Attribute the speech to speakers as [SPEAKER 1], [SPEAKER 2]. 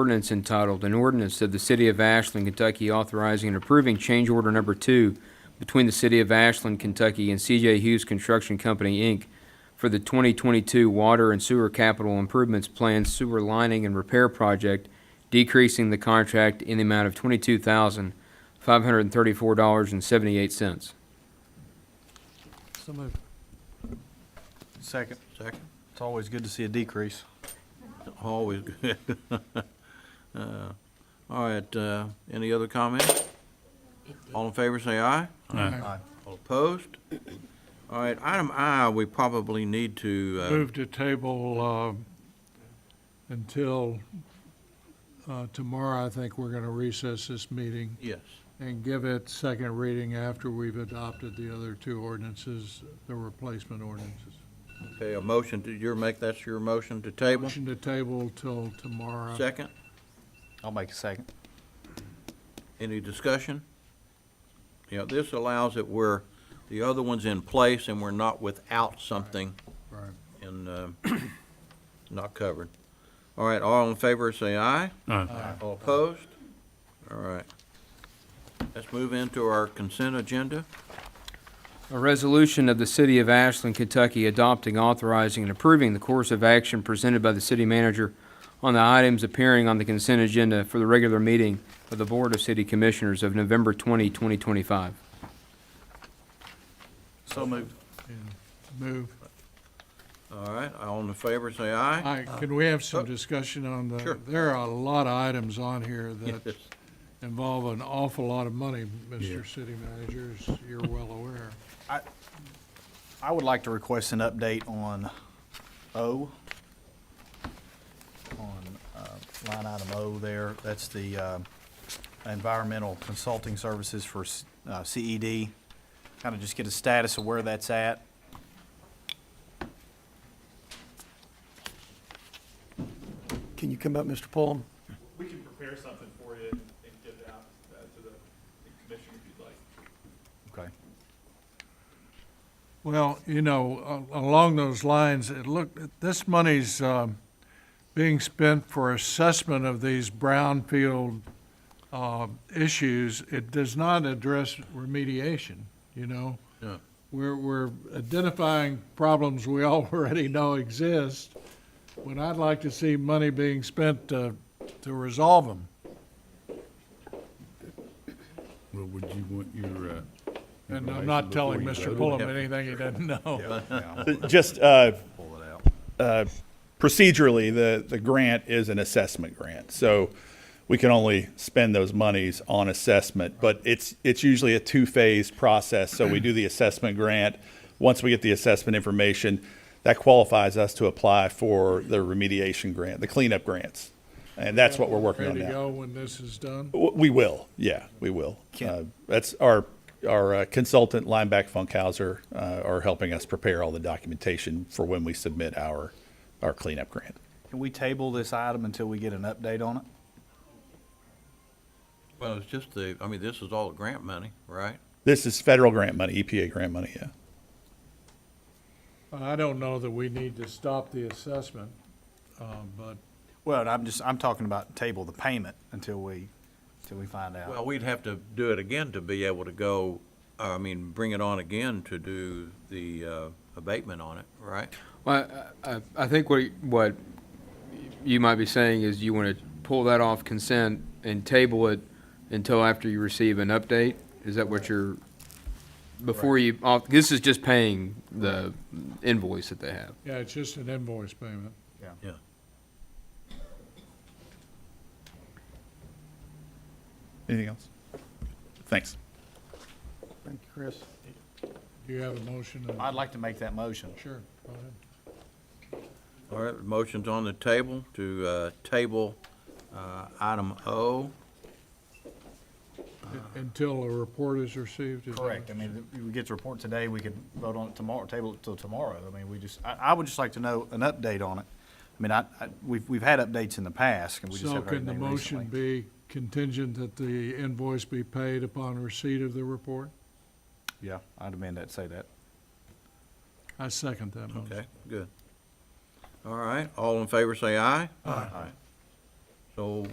[SPEAKER 1] Ordinance entitled, an ordinance of the City of Ashland, Kentucky authorizing and approving change order number two between the City of Ashland, Kentucky and CJ Hughes Construction Company, Inc. for the 2022 Water and Sewer Capital Improvements Plan Sewer Lining and Repair Project, decreasing the contract in the amount of $22,534.78.
[SPEAKER 2] So moved.
[SPEAKER 3] Second. Second. It's always good to see a decrease. Always good. Uh, All right, uh, any other comments? All in favor, say aye. Aye. All opposed? All right, item I, we probably need to, uh,
[SPEAKER 2] Move to table um, until uh, tomorrow, I think we're going to recess this meeting
[SPEAKER 3] yes,
[SPEAKER 2] and give it second reading after we've adopted the other two ordinances, the replacement ordinances.
[SPEAKER 3] okay, a motion to, your make, that's your motion to table?
[SPEAKER 2] Motion to table till tomorrow.
[SPEAKER 3] Second?
[SPEAKER 4] I'll make a second.
[SPEAKER 3] Any discussion? You know, this allows it where the other one's in place and we're not without something
[SPEAKER 2] Right.
[SPEAKER 3] and uh, not covered. All right, all in favor, say aye. Aye. All opposed? All right. Let's move into our consent agenda.
[SPEAKER 1] A resolution of the City of Ashland, Kentucky adopting, authorizing, and approving the course of action presented by the city manager on the items appearing on the consent agenda for the regular meeting of the Board of City Commissioners of November 20, 2025.
[SPEAKER 4] So moved.
[SPEAKER 2] And Move.
[SPEAKER 3] All right, all in favor, say aye.
[SPEAKER 2] Hi, can we have
[SPEAKER 3] Oh.
[SPEAKER 2] some discussion on
[SPEAKER 3] Sure.
[SPEAKER 2] the, there are a lot of items on here that
[SPEAKER 3] Yes.
[SPEAKER 2] involve an awful lot of money, Mr. City Manager, as you're well aware.
[SPEAKER 4] I would like to request an update on O, on uh, line item O there. That's the uh, environmental consulting services for s- uh, CED. Kind of just get a status of where that's at.
[SPEAKER 5] Can you come up, Mr. Paul?
[SPEAKER 6] We can prepare something for you and and get it out uh, to the the commission if you'd like.
[SPEAKER 4] Okay.
[SPEAKER 2] Well, you know, a- along those lines, it look, this money's um, being spent for assessment of these brownfield uh, issues. It does not address remediation, you know?
[SPEAKER 3] Yeah.
[SPEAKER 2] We're, we're identifying problems we already know exist, when I'd like to see money being spent to, to resolve them.
[SPEAKER 7] Well, would you want your, uh?
[SPEAKER 2] And I'm not telling Mr. Pullum anything he doesn't know.
[SPEAKER 8] Just uh, uh, procedurally, the, the grant is an assessment grant. So we can only spend those monies on assessment, but it's, it's usually a two-phase process. So we do the assessment grant. Once we get the assessment information, that qualifies us to apply for the remediation grant, the cleanup grants. And that's what we're working on
[SPEAKER 2] Ready
[SPEAKER 8] now.
[SPEAKER 2] to go when this is done?
[SPEAKER 8] W- We will, yeah, we will. Uh, That's our, our uh, consultant, Lineback Funkhauser, uh, are helping us prepare all the documentation for when we submit our, our cleanup grant.
[SPEAKER 4] Can we table this item until we get an update on it?
[SPEAKER 3] Well, it's just the, I mean, this is all grant money, right?
[SPEAKER 8] This is federal grant money, EPA grant money, yeah.
[SPEAKER 2] I don't know that we need to stop the assessment, uh, but
[SPEAKER 4] Well, I'm just, I'm talking about table the payment until we, until we find out.
[SPEAKER 3] Well, we'd have to do it again to be able to go, I mean, bring it on again to do the uh, abatement on it, right?
[SPEAKER 1] Well, I, I- I think what, what you might be saying is you want to pull that off consent and table it until after you receive an update? Is that what you're, before you, off- this is just paying the invoice that they have?
[SPEAKER 2] Yeah, it's just an invoice payment.
[SPEAKER 3] Yeah.
[SPEAKER 8] Anything else? Thanks.
[SPEAKER 5] Thank you, Chris.
[SPEAKER 2] Do you have a motion? and-
[SPEAKER 4] I'd like to make that motion.
[SPEAKER 2] Sure, go ahead.
[SPEAKER 3] All right, motion's on the table to uh, table uh, item O.
[SPEAKER 2] Until a report is received? is that-
[SPEAKER 4] Correct. I mean, if we get the report today, we could vote on it tomorrow, table it till tomorrow. I mean, we just, I, I would just like to know an update on it. I mean, I, I, we've, we've had updates in the past and we just
[SPEAKER 2] So
[SPEAKER 4] haven't heard
[SPEAKER 2] can the
[SPEAKER 4] anything
[SPEAKER 2] motion
[SPEAKER 4] recently.
[SPEAKER 2] be contingent that the invoice be paid upon receipt of the report?
[SPEAKER 4] Yeah, I'd amend that, say that.
[SPEAKER 2] I second that motion.
[SPEAKER 3] Okay, good. All right, all in favor, say aye. Aye. So